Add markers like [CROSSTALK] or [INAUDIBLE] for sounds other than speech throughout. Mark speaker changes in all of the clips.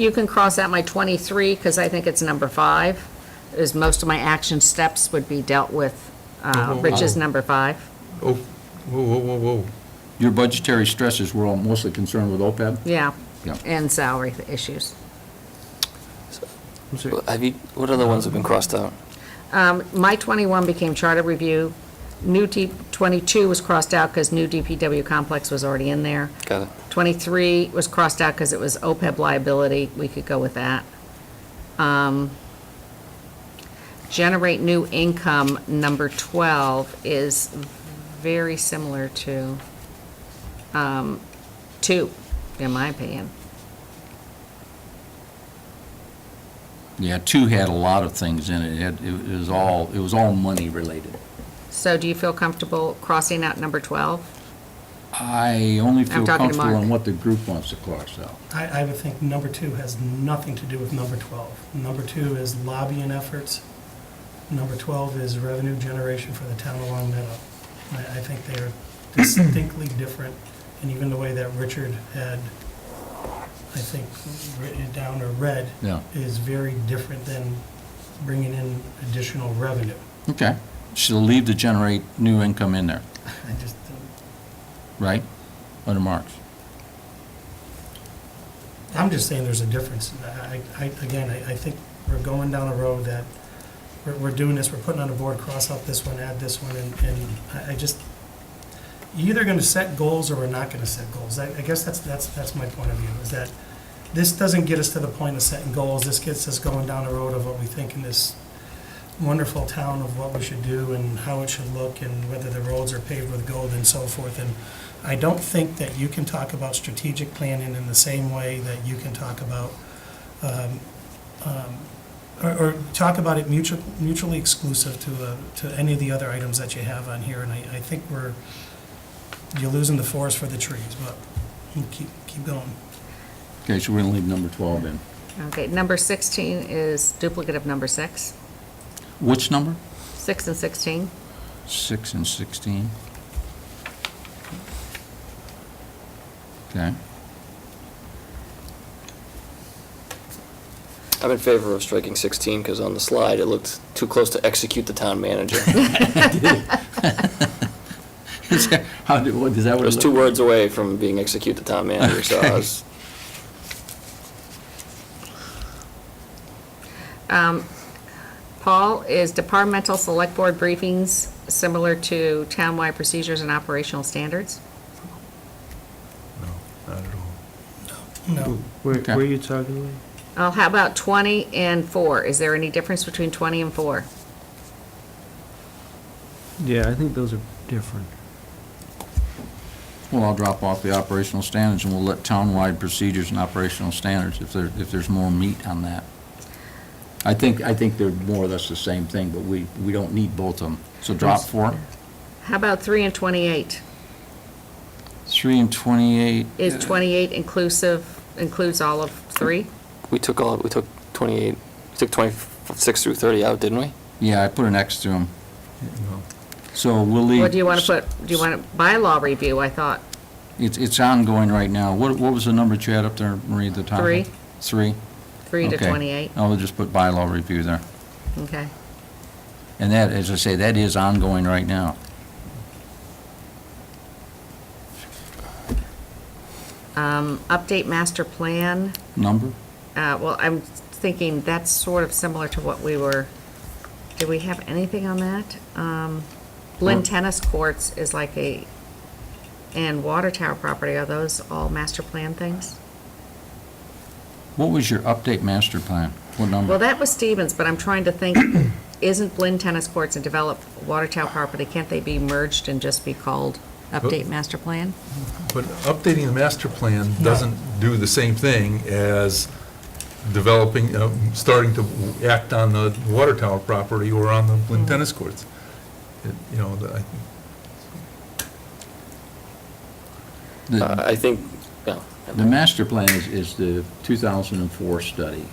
Speaker 1: You can cross out my 23, because I think it's number five, is most of my action steps would be dealt with, uh, Rich's number five.
Speaker 2: Oh, whoa, whoa, whoa, whoa.
Speaker 3: Your budgetary stresses were all mostly concerned with OPEB?
Speaker 1: Yeah.
Speaker 3: Yeah.
Speaker 1: And salary issues.
Speaker 4: Have you, what other ones have been crossed out?
Speaker 1: Um, My 21 became charter review. New D, 22 was crossed out because new DPW complex was already in there.
Speaker 4: Got it.
Speaker 1: 23 was crossed out because it was OPEB liability. We could go with that. Um, Generate new income, number 12, is very similar to um, 2, in my opinion.
Speaker 3: Yeah, two had a lot of things in it. It had, it was all, it was all money related.
Speaker 1: So do you feel comfortable crossing out number 12?
Speaker 3: I only feel
Speaker 1: I'm talking to
Speaker 3: comfortable
Speaker 1: Mark.
Speaker 3: on what the group wants to cross out.
Speaker 5: I, I would think number two has nothing to do with number 12. Number two is lobbying efforts. Number 12 is revenue generation for the town of Long Meadow. I, I think they are distinctly different, and even the way that Richard had, I think, written it down or read,
Speaker 3: Yeah.
Speaker 5: is very different than bringing in additional revenue.
Speaker 3: Okay. She'll leave to generate new income in there,
Speaker 5: I just,
Speaker 3: right? Under Mark's.
Speaker 5: I'm just saying there's a difference. I, I, I- again, I, I think we're going down a road that we're, we're doing this, we're putting on a board, cross out this one, add this one, and, and I, I just, you're either gonna set goals or we're not gonna set goals. I, I guess that's, that's, that's my point of view, is that this doesn't get us to the point of setting goals. This gets us going down a road of what we think in this wonderful town of what we should do and how it should look and whether the roads are paved with gold and so forth. And I don't think that you can talk about strategic planning in the same way that you can talk about, um, um, or, or talk about it mutual, mutually exclusive to, uh, to any of the other items that you have on here. And I, I think we're, you're losing the forest for the trees, but we'll keep, keep going.
Speaker 3: Okay, so we're gonna leave number 12 in.
Speaker 1: Okay, number 16 is duplicate of number 6,
Speaker 3: Which number?
Speaker 1: 6 and 16.
Speaker 3: Six and 16. Okay.
Speaker 4: I'm in favor of striking 16 because on the slide, it looked too close to execute the town manager. [LAUGHS]
Speaker 3: Is that- How, do- what, is that
Speaker 4: It
Speaker 3: what?
Speaker 4: was
Speaker 3: it
Speaker 4: two
Speaker 3: looked-
Speaker 4: words away from being execute the town manager, so I was,
Speaker 1: Paul is departmental select board briefings, similar to townwide procedures and operational standards.
Speaker 2: No, not at all.
Speaker 5: No,
Speaker 6: Where,
Speaker 3: Okay.
Speaker 6: where are you talking about?
Speaker 1: Oh, how about 20 and 4? Is there any difference between 20 and 4?
Speaker 6: Yeah, I think those are different.
Speaker 3: Well, I'll drop off the operational standards and we'll let townwide procedures and operational standards if there, if there's more meat on that. I think, I think they're more or less the same thing, but we, we don't need both of them. So drop four.
Speaker 1: How about 3 and 28?
Speaker 3: Three and 28.
Speaker 1: Is 28 inclusive, includes all of 3?
Speaker 4: [LAUGHS] we took all, we took 28, we took 26 through 30 out, didn't we?
Speaker 3: Yeah, I put an X through them.
Speaker 2: No.
Speaker 3: So we'll leave.
Speaker 1: Or do you want to put, do you want to, bylaw review, I thought,
Speaker 3: It's, it's ongoing right now. What, what was the number that you had up there, Marie, at the top?
Speaker 1: Three.
Speaker 3: Three?
Speaker 1: 3 to
Speaker 3: Okay.
Speaker 1: 28?
Speaker 3: I'll just put bylaw review there.
Speaker 1: Okay.
Speaker 3: And that, as I say, that is ongoing right now.
Speaker 1: Um, Update master plan.
Speaker 3: Number?
Speaker 1: Uh, Well, I'm thinking that's sort of similar to what we were, do we have anything on that? Um, Lynn
Speaker 3: Well-
Speaker 1: Tennis Courts is like a, and Water Tower property, are those all master plan things?
Speaker 3: What was your update master plan? What number?
Speaker 1: Well, that was Stevens, but I'm trying to think, [COUGHS] isn't Lynn Tennis Courts and developed Water Tower property, can't they be merged and just be called Update Master Plan?
Speaker 2: But updating the master plan
Speaker 5: No.
Speaker 2: doesn't do the same thing as developing, uh, starting to act on the water tower property or on the Blinn tennis courts. It- You know, the- I-
Speaker 3: The-
Speaker 4: Uh, I think, yeah.
Speaker 3: The master plan is, is the 2004 study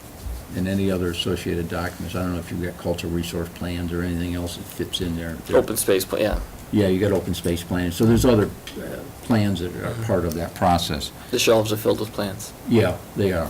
Speaker 3: and any other associated documents. I don't know if you've got cultural resource plans or anything else that fits in there.
Speaker 4: Open space, pla- yeah.
Speaker 3: Yeah, you got open space plans. So there's other uh, plans that are part of that process.
Speaker 4: The shelves are filled with plants.
Speaker 3: Yeah, they are.